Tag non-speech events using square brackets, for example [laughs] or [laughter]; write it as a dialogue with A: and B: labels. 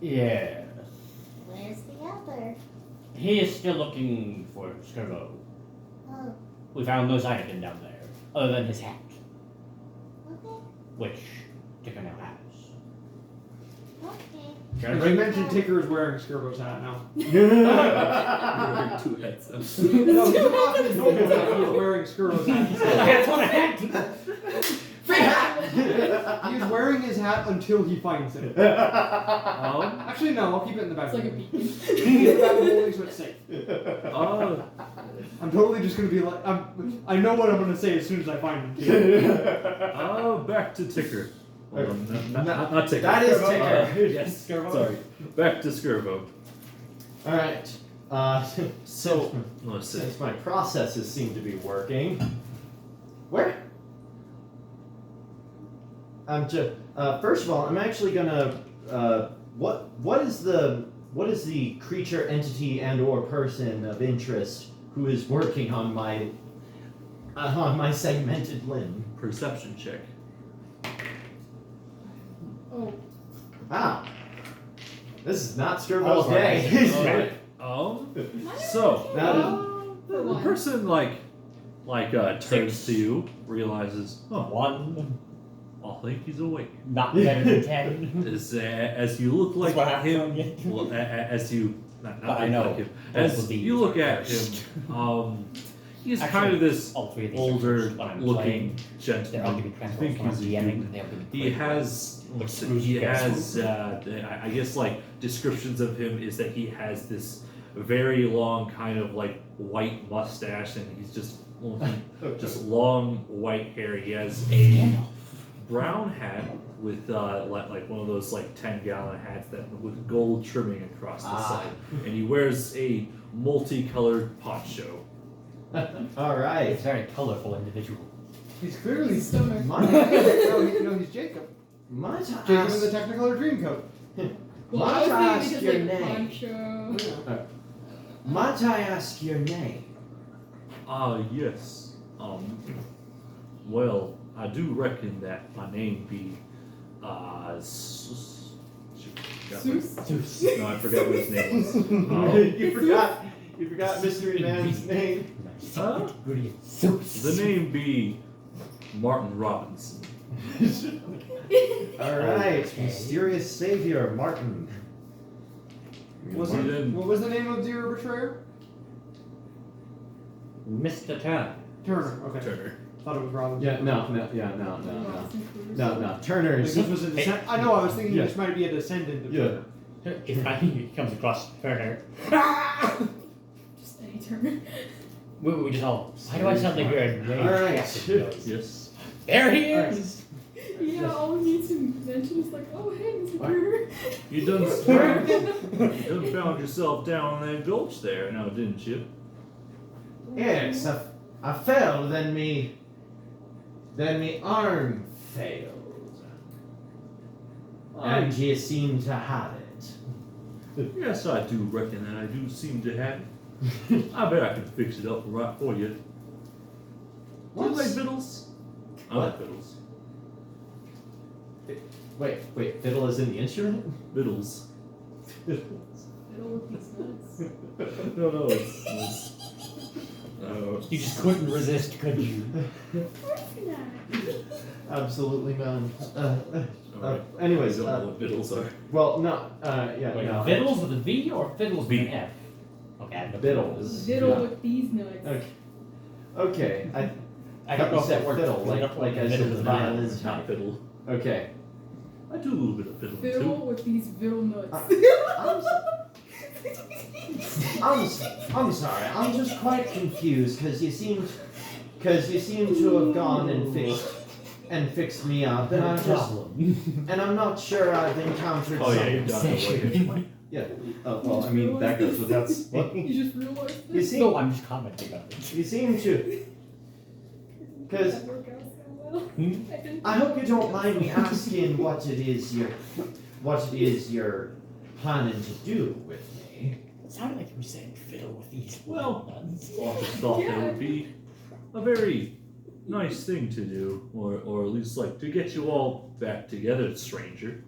A: Yeah.
B: Where's the other?
A: He is still looking for Skirbo.
B: Oh,
A: We found no sign of him down there, other than his hat,
B: okay,
A: which Ticker now has.
B: okay.
C: And [laughs] Ray mentioned Ticker is wearing Skirbo's hat now.
D: Wearing [laughs] two heads.
C: No, he walked in the door and he was wearing Skirbo's hat.
A: That's what a hat!
C: Free hat! he is wearing his hat until he finds it.
D: Oh.
C: Actually, no, I'll keep it in the back.
E: It's like a beacon.
C: Keep it back in the holding so it's safe.
D: Oh.
C: I'm totally just gonna be like, I'm, I know what I'm gonna say as soon as I find him.
D: Oh, back to Ticker. Hold on, no, not, not, not Ticker.
F: That is
D: Uh,
F: Ticker.
D: yes.
F: Skirbo.
D: Sorry. Back to Skirbo.
F: All right. Uh, so
D: Let's see.
F: since my processes seem to be working, where? I'm just. Uh, first of all, I'm actually gonna. Uh, what what is the what is the creature, entity, and or person of interest who is working on my uh, on my segmented limb?
D: Perception check.
E: Oh,
F: Ah, this is not Skirbo's
A: All of our
F: [laughs] day.
D: Um.
E: am I
D: So
E: okay?
F: That is-
D: the, the person like, like uh, turns to you, realizes, oh,
A: One,
D: I think he's awake.
A: not better than ten.
D: As uh, as you look like
A: That's what I
D: him,
A: found [laughs] yet.
D: well, a, a, as you, not,
A: But
D: not
A: I
D: look
A: know
D: like him,
A: both of
D: as
A: these
D: you look at
A: first.
D: him,
A: [laughs]
D: um, he's
A: Actually,
D: kind of this
A: All three of these are
D: older
A: first, but I'm playing.
D: looking
A: They're all going
D: gentleman.
A: to be
D: I think
A: transformed from
D: he's a
A: DMing.
D: human.
A: They're gonna be
D: He has,
A: Like
D: let's see,
A: Scrooge
D: he
A: McDuck's.
D: has, uh, the- I I guess, like descriptions of him is that he has this very long kind of like white mustache, and he's just [laughs]
A: Oh,
D: just long white hair. He has a
A: Gandalf.
D: brown hat with uh, like, like one of those like ten gallon hats that with gold trimming across the
F: Ah.
D: side, and he wears a multicolored poncho.
F: all
A: He's
F: right.
A: a very colorful individual.
C: [laughs] He's clearly
E: Stoner.
F: My-
C: no, he, no, he's Jacob.
F: My task.
C: Jacob in the Technicolor Dreamcoat.
E: Well,
F: Why
E: I
F: not
E: was
F: ask your
E: thinking because, like,
F: name?
E: Pancho.
F: Might I ask your
E: [laughs]
F: name? [laughs]
D: Ah, yes. Um, well, I do reckon that my name be, uh, S- S-
E: Zeus?
D: no, I forgot what his name was. Um,
F: you forgot. You forgot Mystery Man's name.
D: Huh? the
A: The
D: name be Martin Robinson.
F: All right,
A: Okay.
F: mysterious savior Martin.
C: Was
D: Martin.
C: it, what was the name of your betrayer?
A: Mr. Turner.
C: Turner. Okay.
D: Turner.
C: Thought it was Robin.
F: Yeah, no, no, yeah, no, no, no,
E: Robinson Crusoe.
F: no, no. Turner's.
C: Because was a descend- I know. I was thinking this might be a descendant of
F: Yeah.
C: Turner.
A: If I, he comes across
D: [laughs]
A: Turner,
E: Just any [laughs] Turner.
A: we, we just all. Why do I sound like you're
F: All right.
A: enraged?
D: Yes.
A: There he
C: All right.
A: is.
E: Yeah, all we need to mention is like, oh hey, Mr.
F: What? [laughs]
E: Turner.
D: You done, found, you done found yourself down in that gulch there now, didn't you?
F: Yes, I, I fell. Then me. Then me arm failed, and you seem to have it.
D: Yes, I do reckon that I do seem to have it. I bet I can fix it up right for you. Do you like
F: What's-
D: fiddles? I like fiddles.
F: Wait, wait. Fiddle is in the instrument. [laughs]
D: Fiddles.
E: Fiddle with these
F: [laughs]
E: nuts.
D: No, no, it's. it's no.
A: You just couldn't resist, could you?
E: Of course not.
F: Absolutely none. Uh, uh,
D: Alright. I
F: anyways,
D: don't
F: uh,
D: know what fiddles are.
F: Well, no, uh, yeah,
A: Wait,
F: no.
A: Fiddles with a V or fiddles with
D: V.
A: an F? Okay, I'm the
F: Fiddles.
E: Fiddle
F: Yeah.
E: with these nuts.
F: Okay. Okay. I,
A: I don't know if
F: Said
A: that works.
F: fiddle, like- like I said, the violin.
A: [laughs]
D: It's not fiddle.
F: okay.
D: I do a little bit of fiddling too.
E: Fiddle with these fiddle nuts.
F: Ah, I'm, s- I'm, s- I'm sorry. I'm just quite confused because you seemed, because you seem to have gone and fixed, and fixed me up, and I'm just,
A: problem.
F: and I'm not sure I've encountered.
D: Oh, yeah,
F: some-
D: you're done.
A: [laughs]
D: Away.
F: Oh, well, I mean that goes without. s-
E: [laughs] you just realized
F: You
E: this.
F: seem,
A: no, oh, I'm just commenting on it.
F: you seem to. Because
E: That worked out so well.
A: Hmm?
E: [laughs] I didn't-
F: I hope you don't mind me asking what it is you're, what it is you're planning to do with me.
A: It sounded like you were saying fiddle with these
D: Well,
A: ones.
D: I just thought that would be a very nice thing to do, or, or at least like to get you all back together, stranger.